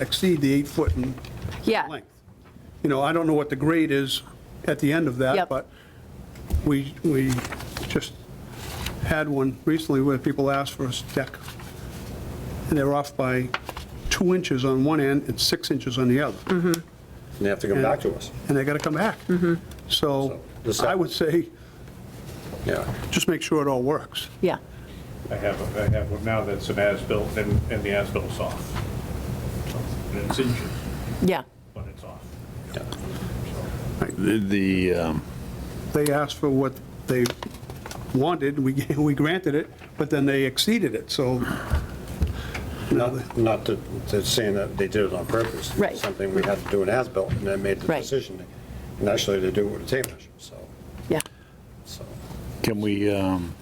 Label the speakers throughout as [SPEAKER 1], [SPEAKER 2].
[SPEAKER 1] exceed the eight foot in
[SPEAKER 2] Yeah,
[SPEAKER 1] length. You know, I don't know what the grade is at the end of that,
[SPEAKER 2] Yep.
[SPEAKER 1] but we, we just had one recently where people asked for a deck, and they're off by two inches on one end and six inches on the other, and
[SPEAKER 3] They have to come back to us.
[SPEAKER 1] they gotta come back. So
[SPEAKER 3] So, the-
[SPEAKER 1] I would say,
[SPEAKER 3] Yeah.
[SPEAKER 1] just make sure it all works.
[SPEAKER 2] yeah.
[SPEAKER 4] I have, I have one now that's an as-built, and, and the as-bilt's off. So, And it's inches,
[SPEAKER 2] Yeah,
[SPEAKER 4] but it's off.
[SPEAKER 3] Yeah.
[SPEAKER 5] The- The, um,
[SPEAKER 1] They asked for what they wanted, we, we granted it, but then they exceeded it, so, you know,
[SPEAKER 3] Not, not to, to saying that they did it on purpose.
[SPEAKER 2] Right.
[SPEAKER 3] Something we had to do an as-built, and then made the
[SPEAKER 2] Right.
[SPEAKER 3] decision. And actually, they do it with a tape measure, so,
[SPEAKER 2] yeah.
[SPEAKER 3] so.
[SPEAKER 5] can we um,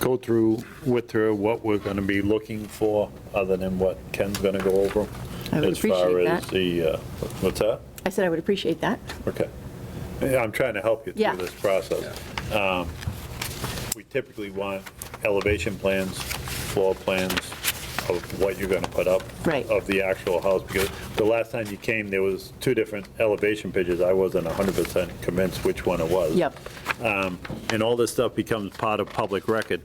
[SPEAKER 5] go through with her what we're going to be looking for, other than what Ken's going to go over?
[SPEAKER 2] I would appreciate
[SPEAKER 5] As far as
[SPEAKER 2] that.
[SPEAKER 5] the, uh, what's that?
[SPEAKER 2] I said I would appreciate that.
[SPEAKER 5] Okay. Yeah, I'm trying to help you
[SPEAKER 2] Yeah.
[SPEAKER 5] through this process. Um, We typically want elevation plans, floor plans of what you're gonna put up.
[SPEAKER 2] Right.
[SPEAKER 5] Of the actual house, because the last time you came, there was two different elevation pictures. I wasn't 100% convinced which one it was.
[SPEAKER 2] Yep.
[SPEAKER 5] Um, And all this stuff becomes part of public record.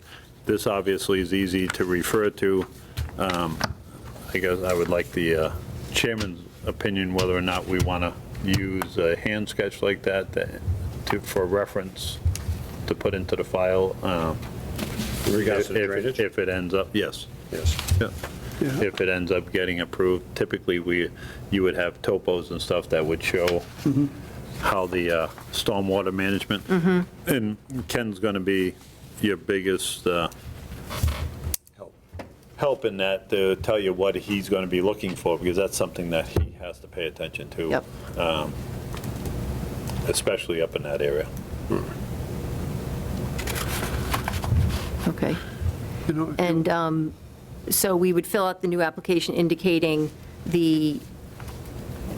[SPEAKER 5] This obviously is easy to refer to. Um, I guess I would like the uh, chairman's opinion whether or not we want to use a hand sketch like that to- to, for reference to put into the file. um,
[SPEAKER 3] In regards
[SPEAKER 5] If
[SPEAKER 3] to the drainage?
[SPEAKER 5] if it ends up, yes.
[SPEAKER 3] Yes.
[SPEAKER 5] Yeah. If it ends up getting approved, typically we, you would have topos and stuff that would show how the uh, stormwater management. And Ken's going to be your biggest uh,
[SPEAKER 3] Help.
[SPEAKER 5] help in that to tell you what he's going to be looking for, because that's something that he has to pay attention to.
[SPEAKER 2] Yep.
[SPEAKER 5] um, Especially up in that area.
[SPEAKER 2] Okay.
[SPEAKER 1] you know.
[SPEAKER 2] And um, so we would fill out the new application indicating the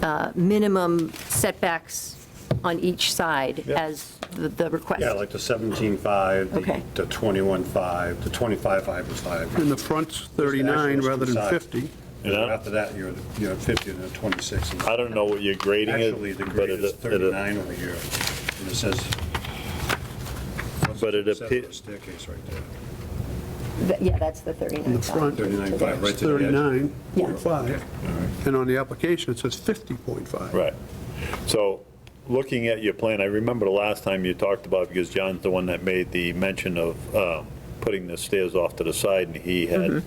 [SPEAKER 2] uh, minimum setbacks on each side
[SPEAKER 5] Yeah.
[SPEAKER 2] as the- the request.
[SPEAKER 3] Yeah, like the 17.5,
[SPEAKER 2] Okay.
[SPEAKER 3] the- the 21.5, the 25.5 was 5.
[SPEAKER 1] In the front's 39 rather than 50.
[SPEAKER 3] And
[SPEAKER 5] Yeah.
[SPEAKER 3] after that, you're, you're at 50 and then 26. and-
[SPEAKER 5] I don't know what your grading is.
[SPEAKER 3] Actually, the
[SPEAKER 5] but
[SPEAKER 3] grade
[SPEAKER 5] it-
[SPEAKER 3] is
[SPEAKER 5] it-
[SPEAKER 3] 39 over here, and it says.
[SPEAKER 5] But it
[SPEAKER 3] Says
[SPEAKER 5] appear-
[SPEAKER 3] the Staircase right there,
[SPEAKER 2] Th- Yeah, that's the 39.
[SPEAKER 1] In the front,
[SPEAKER 3] 39.5, right
[SPEAKER 1] it's
[SPEAKER 3] to the edge.
[SPEAKER 1] 39.5. And on the application, it says 50.5.
[SPEAKER 5] Right. So, looking at your plan, I remember the last time you talked about, because John's the one that made the mention of um, putting the stairs off to the side, and he had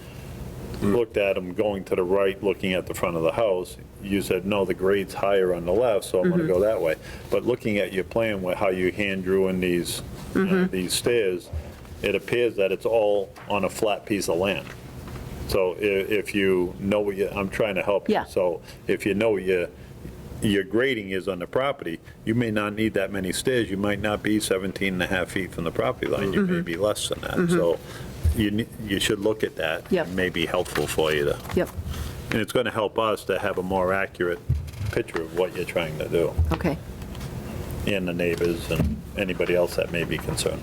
[SPEAKER 5] looked at them going to the right, looking at the front of the house. You said, no, the grade's higher on the left, so I'm going to go that way. But looking at your plan, with how you hand drew in these, uh, these stairs, it appears that it's all on a flat piece of land. So i- if you know what you, I'm trying to help you.
[SPEAKER 2] Yeah.
[SPEAKER 5] So if you know what your, your grading is on the property, you may not need that many stairs. You might not be 17 and a half feet from the property line. You may be less than that. So you, ne- you should look at that.
[SPEAKER 2] Yep.
[SPEAKER 5] It May be helpful for you to,
[SPEAKER 2] Yep,
[SPEAKER 5] and it's going to help us to have a more accurate picture of what you're trying to do
[SPEAKER 2] okay.
[SPEAKER 5] and the neighbors and anybody else that may be concerned.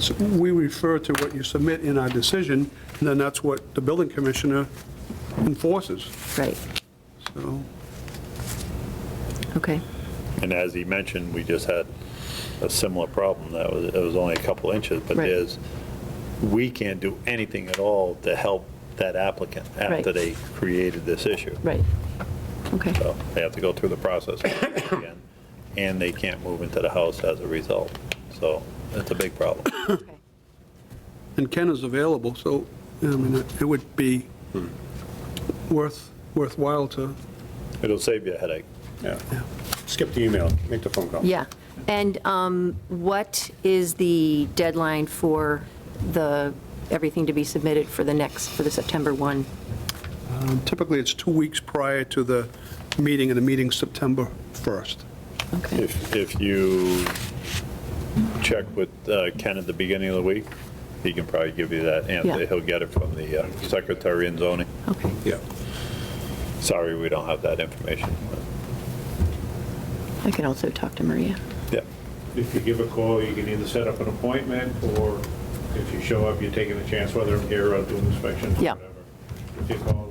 [SPEAKER 1] So We refer to what you submit in our decision, and then that's what the building commissioner enforces,
[SPEAKER 2] Right,
[SPEAKER 1] so.
[SPEAKER 2] okay.
[SPEAKER 5] And as he mentioned, we just had a similar problem, that was, it was only a couple inches, but
[SPEAKER 2] Right.
[SPEAKER 5] there's, we can't do anything at all to help that applicant after
[SPEAKER 2] Right.
[SPEAKER 5] they created this issue.
[SPEAKER 2] Right. Okay.
[SPEAKER 5] So they have to go through the process again, and they can't move into the house as a result. So that's a big problem.
[SPEAKER 2] Okay.
[SPEAKER 1] And Ken is available, so, I mean, it would be worth, worthwhile to,
[SPEAKER 5] It'll save you a headache.
[SPEAKER 3] yeah. Skip the email, make the phone call.
[SPEAKER 2] Yeah. And um, what is the deadline for the, everything to be submitted for the next, for the September 1?
[SPEAKER 1] um, typically, it's two weeks prior to the meeting, and the meeting's September 1st.
[SPEAKER 2] Okay.
[SPEAKER 5] If, if you check with uh, Ken at the beginning of the week, he can probably give you that answer.
[SPEAKER 2] Yeah.
[SPEAKER 5] He'll get it from the uh, secretary in zoning.
[SPEAKER 2] Okay.
[SPEAKER 3] Yeah.
[SPEAKER 5] Sorry, we don't have that information. but-
[SPEAKER 2] I can also talk to Maria.
[SPEAKER 5] Yeah,
[SPEAKER 4] If you give a call, you can either set up an appointment, or if you show up, you're taking a chance whether I'm here or doing inspections, or
[SPEAKER 2] Yeah.
[SPEAKER 4] whatever. If you call,